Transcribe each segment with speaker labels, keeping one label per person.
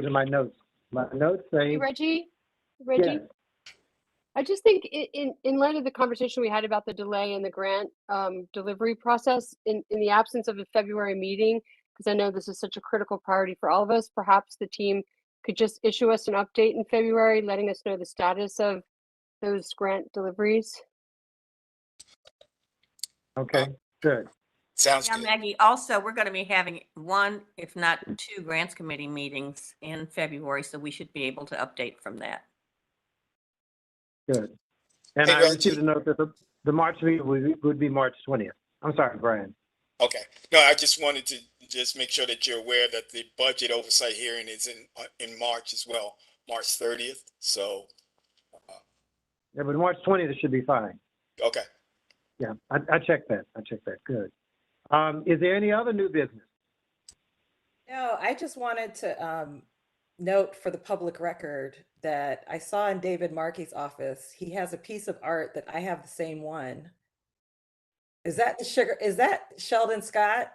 Speaker 1: go to my notes. My notes
Speaker 2: Hey,
Speaker 1: say,
Speaker 2: Reggie, Reggie, I just think i- in, in light of the conversation we had about the delay in the grant um, delivery process, in, in the absence of a February meeting, because I know this is such a critical priority for all of us, perhaps the team could just issue us an update in February, letting us know the status of those grant deliveries.
Speaker 1: okay, good.
Speaker 3: Sounds
Speaker 4: Yeah,
Speaker 3: good.
Speaker 4: Maggie, also, we're going to be having one, if not two, grants committee meetings in February, so we should be able to update from that.
Speaker 1: Good. And
Speaker 3: Hey,
Speaker 1: I
Speaker 3: Reggie.
Speaker 1: received a note that the, the March meeting would, be- would be March twentieth. I'm sorry, Brian.
Speaker 3: Okay. No, I just wanted to just make sure that you're aware that the budget oversight hearing is in, uh, in March as well, March thirtieth. So,
Speaker 1: Yeah, but March twentieth should be fine.
Speaker 3: okay.
Speaker 1: Yeah, I, I checked that. I checked that. Good. Um, is there any other new business?
Speaker 5: No, I just wanted to um, note for the public record that I saw in David Markey's office, he has a piece of art that I have the same one. Is that the sugar? Is that Sheldon Scott?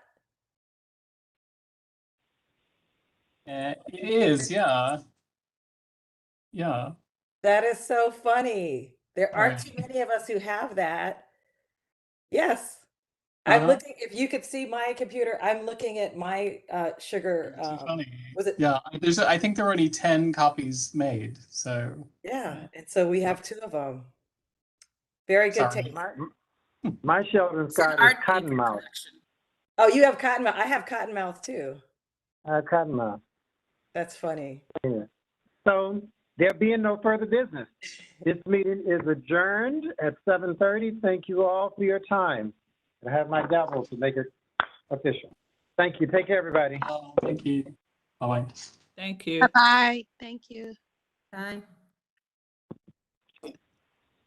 Speaker 6: Uh, It is, yeah. Yeah,
Speaker 5: That is so funny. There aren't
Speaker 6: Right.
Speaker 5: too many of us who have that. Yes. I'm
Speaker 6: Uh-huh.
Speaker 5: looking, if you could see my computer, I'm looking at my uh, sugar.
Speaker 6: it's so
Speaker 5: um,
Speaker 6: funny.
Speaker 5: Was it?
Speaker 6: Yeah, I- there's, I think there are only 10 copies made, so
Speaker 5: Yeah. And so we have two of them. Very good
Speaker 6: Sorry.
Speaker 5: take, Mark.
Speaker 1: My Sheldon
Speaker 7: It's an
Speaker 1: Scott is
Speaker 7: art paper
Speaker 1: Cottonmouth.
Speaker 7: collection.
Speaker 5: Oh, you have Cottonmouth. I have Cottonmouth too.
Speaker 1: Uh, Cottonmouth.
Speaker 5: That's funny.
Speaker 1: Yeah. So there being no further business, this meeting is adjourned at seven thirty. Thank you all for your time. I have my gavel to make it official. Thank you. Take care, everybody.
Speaker 6: uh, thank you. Bye-bye.
Speaker 7: Thank you.
Speaker 8: Bye-bye. Thank you.
Speaker 4: Bye.